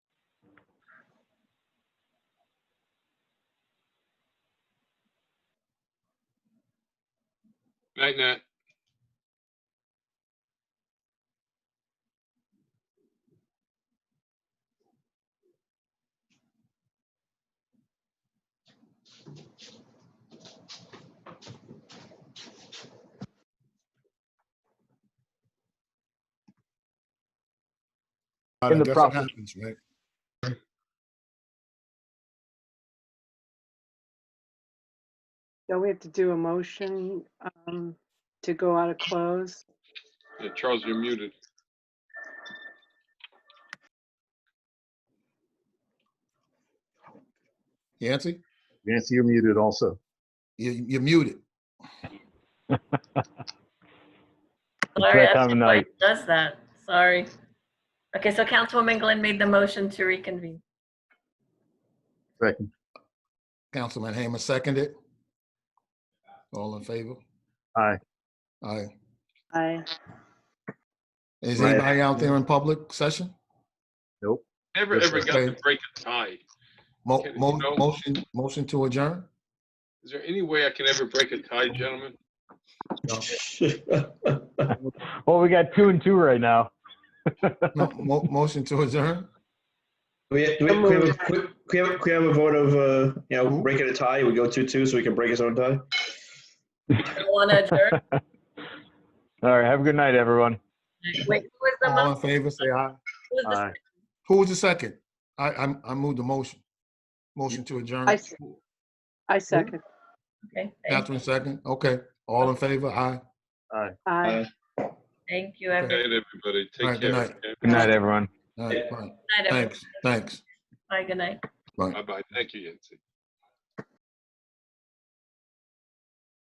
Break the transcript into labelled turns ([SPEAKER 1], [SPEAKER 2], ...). [SPEAKER 1] Night, Nat.
[SPEAKER 2] God,
[SPEAKER 3] In
[SPEAKER 2] I
[SPEAKER 3] the
[SPEAKER 2] guess it
[SPEAKER 3] process.
[SPEAKER 2] happens, right?
[SPEAKER 4] Don't we have to do a motion um, to go out of close?
[SPEAKER 1] Yeah, Charles, you're muted.
[SPEAKER 2] Yancy,
[SPEAKER 5] Nancy, you're muted also.
[SPEAKER 2] you, you're muted.
[SPEAKER 6] Larry,
[SPEAKER 5] That
[SPEAKER 6] I
[SPEAKER 5] time of
[SPEAKER 6] don't know why
[SPEAKER 5] night.
[SPEAKER 6] it Does that, sorry. Okay, so Councilwoman Glenn made the motion to reconvene.
[SPEAKER 5] Second.
[SPEAKER 2] Councilman Hamer seconded. All in favor?
[SPEAKER 5] Aye.
[SPEAKER 2] Aye.
[SPEAKER 4] I,
[SPEAKER 2] Is
[SPEAKER 5] Right.
[SPEAKER 2] anybody out there in public session?
[SPEAKER 1] Never,
[SPEAKER 5] Yes,
[SPEAKER 1] ever
[SPEAKER 2] sir.
[SPEAKER 1] got to break a tie.
[SPEAKER 2] Mo-
[SPEAKER 1] Okay,
[SPEAKER 2] mo-
[SPEAKER 1] no.
[SPEAKER 2] motion, motion to adjourn?
[SPEAKER 1] Is there any way I can ever break a tie, gentlemen?
[SPEAKER 3] Well, we got two and two right now.
[SPEAKER 2] No, mo- motion to adjourn?
[SPEAKER 7] We have, do we,
[SPEAKER 4] I'm
[SPEAKER 7] can we have, a,
[SPEAKER 4] moving.
[SPEAKER 7] can we have, can we have a vote of, uh, you know, breaking a tie? We go 2 2 so we can break his own tie?
[SPEAKER 6] Want to adjourn?
[SPEAKER 3] All right. Have a good night, everyone.
[SPEAKER 6] Wait, who was the
[SPEAKER 2] All
[SPEAKER 6] mo-
[SPEAKER 2] in favor, say aye.
[SPEAKER 6] who was the
[SPEAKER 5] Aye.
[SPEAKER 2] Who was the second? I, I, I moved the motion. Motion to adjourn.
[SPEAKER 4] I s- I second.
[SPEAKER 6] Okay, thank-
[SPEAKER 2] Catherine second, okay. All in favor, aye.
[SPEAKER 4] I.
[SPEAKER 6] Thank you,
[SPEAKER 1] Good
[SPEAKER 6] everyone.
[SPEAKER 1] night, everybody.
[SPEAKER 2] All
[SPEAKER 1] Take
[SPEAKER 2] right, good
[SPEAKER 1] care.
[SPEAKER 2] night.
[SPEAKER 1] okay?
[SPEAKER 3] Good night, everyone.
[SPEAKER 2] All right, fine.
[SPEAKER 6] Good night, everyone.
[SPEAKER 2] Thanks, thanks.
[SPEAKER 6] Bye, good night.
[SPEAKER 2] Bye.
[SPEAKER 1] Bye-bye. Thank you, Yancy.